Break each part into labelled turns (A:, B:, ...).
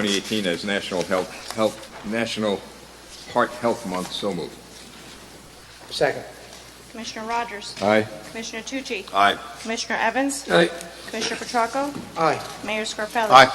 A: 2018 as National Health, Health, National Heart Health Month. So moved.
B: Second.
C: Commissioner Rogers?
A: Aye.
C: Commissioner Tucci?
A: Aye.
C: Commissioner Evans?
B: Aye.
C: Commissioner Petracco?
B: Aye.
C: Mayor Scarpelli?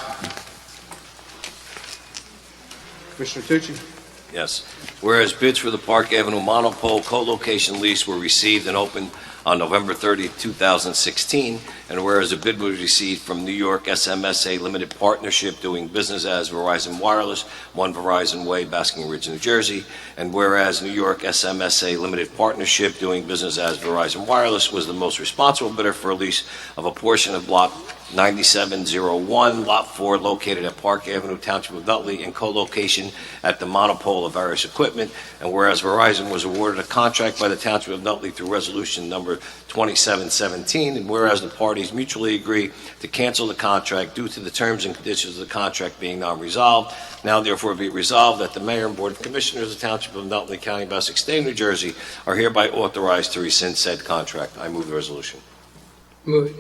B: Commissioner Tucci?
D: Yes. Whereas bids for the Park Avenue Monopole co-location lease were received and opened on November 30, 2016, and whereas a bid was received from New York SMSA Limited Partnership doing business as Verizon Wireless, One Verizon Way, Basking Ridge, New Jersey, and whereas New York SMSA Limited Partnership doing business as Verizon Wireless was the most responsible bidder for a lease of a portion of Block 9701, Lot 4, located at Park Avenue, Township of Nutley, in co-location at the monopole of various equipment, and whereas Verizon was awarded a contract by the Township of Nutley through Resolution Number 2717, and whereas the parties mutually agree to cancel the contract due to the terms and conditions of the contract being non-resolved, now therefore be it resolved that the Mayor and Board of Commissioners of the Township of Nutley, County of Essex, State of New Jersey, are hereby authorized to rescind said contract. I move the resolution.
B: Move it.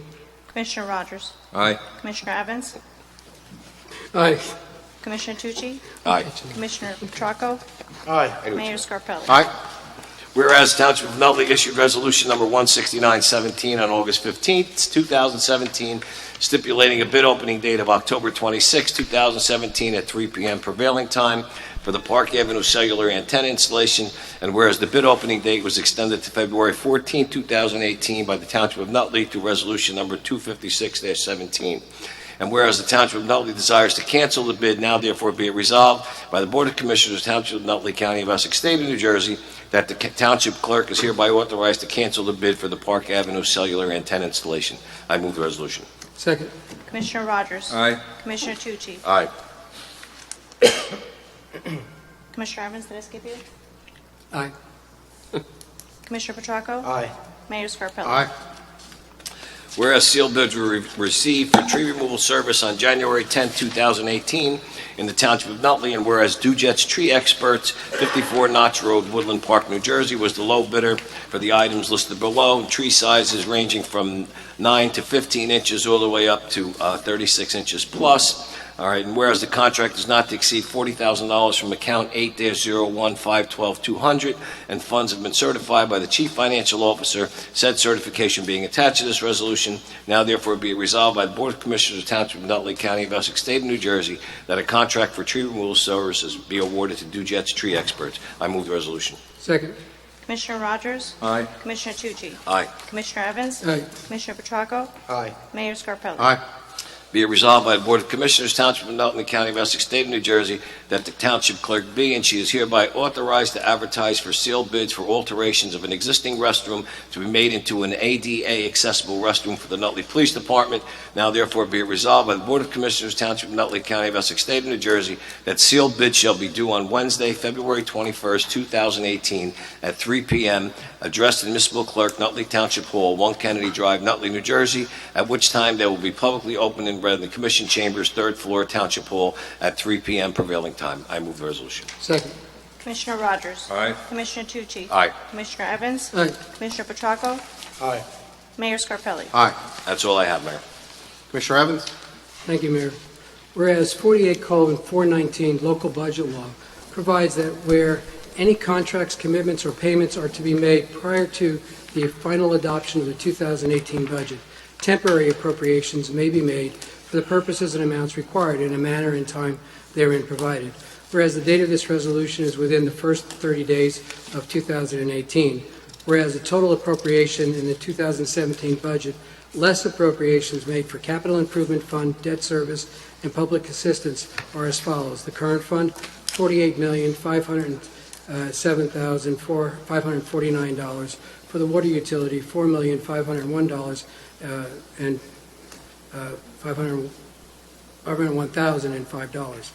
C: Commissioner Rogers?
A: Aye.
C: Commissioner Evans?
B: Aye.
C: Commissioner Tucci?
D: Aye.
C: Commissioner Petracco?
B: Aye.
C: Mayor Scarpelli?
D: Whereas Township of Nutley issued Resolution Number 16917 on August 15th, 2017, stipulating a bid opening date of October 26, 2017, at 3 p.m. prevailing time for the Park Avenue cellular antenna installation, and whereas the bid opening date was extended to February 14, 2018, by the Township of Nutley through Resolution Number 256-17. And whereas the Township of Nutley desires to cancel the bid, now therefore be it resolved by the Board of Commissioners, Township of Nutley, County of Essex, State of New Jersey, that the ca- township clerk is hereby authorized to cancel the bid for the Park Avenue cellular antenna installation. I move the resolution.
B: Second.
C: Commissioner Rogers?
A: Aye.
C: Commissioner Tucci?
D: Aye.
C: Commissioner Evans, did I skip you?
B: Aye.
C: Commissioner Petracco?
B: Aye.
C: Mayor Scarpelli?
D: Whereas sealed bids were re- received for tree removal service on January 10, 2018, in the Township of Nutley, and whereas Dujet's Tree Experts, 54 Notch Road, Woodland Park, New Jersey, was the low bidder for the items listed below, tree sizes ranging from 9 to 15 inches all the way up to uh, 36 inches plus. All right, and whereas the contract is not to exceed $40,000 from account 8-01-512-200, and funds have been certified by the Chief Financial Officer Said certification being attached to this resolution, now therefore be it resolved by the Board of Commissioners of Township of Nutley County of Essex State of New Jersey that a contract for tree removal services be awarded to Dujet's Tree Experts. I move the resolution.
B: Second.
C: Commissioner Rogers?
A: Aye.
C: Commissioner Tucci?
D: Aye.
C: Commissioner Evans?
B: Aye.
C: Commissioner Petracco?
B: Aye.
C: Mayor Scarpelli?
A: Aye.
D: Be it resolved by the Board of Commissioners Township of Nutley County of Essex State of New Jersey that the Township Clerk be and she is hereby authorized to advertise for sealed bids for alterations of an existing restroom to be made into an ADA accessible restroom for the Nutley Police Department. Now therefore be it resolved by the Board of Commissioners Township of Nutley County of Essex State of New Jersey that sealed bids shall be due on Wednesday, February 21st, 2018, at 3 p.m., addressed to Municipal Clerk, Nutley Township Hall, 1 Kennedy Drive, Nutley, New Jersey, at which time they will be publicly opened and read in the Commission Chambers, third floor, Township Hall, at 3 p.m. prevailing time. I move the resolution.
B: Second.
C: Commissioner Rogers?
A: Aye.
C: Commissioner Tucci?
D: Aye.
C: Commissioner Evans?
B: Aye.
C: Commissioner Petracco?
B: Aye.
C: Mayor Scarpelli?
D: That's all I have, Mayor.
E: Commissioner Evans?
B: Thank you, Mayor. Whereas 48 colon 419 local budget law provides that where any contracts, commitments, or payments are to be made prior to the final adoption of the 2018 budget, temporary appropriations may be made for the purposes and amounts required in a manner and time therein provided. Whereas the date of this resolution is within the first 30 days of 2018. Whereas the total appropriation in the 2017 budget less appropriations made for capital improvement fund, debt service, and public assistance are as follows. The current fund, $48,507,549. For the water utility, $4,501 uh, and uh, 500 $501,005.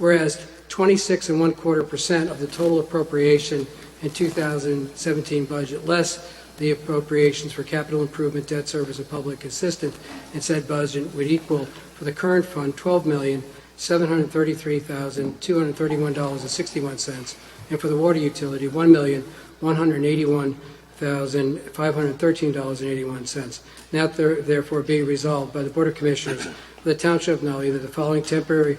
B: Whereas 26 and one quarter percent of the total appropriation in 2017 budget, less the appropriations for capital improvement, debt service, and public assistance in said budget would equal for the current fund $12,733,231.61, and for the water utility, $1,181,513.81. Now ther- therefore be resolved by the Board of Commissioners of the Township of Nutley that the following temporary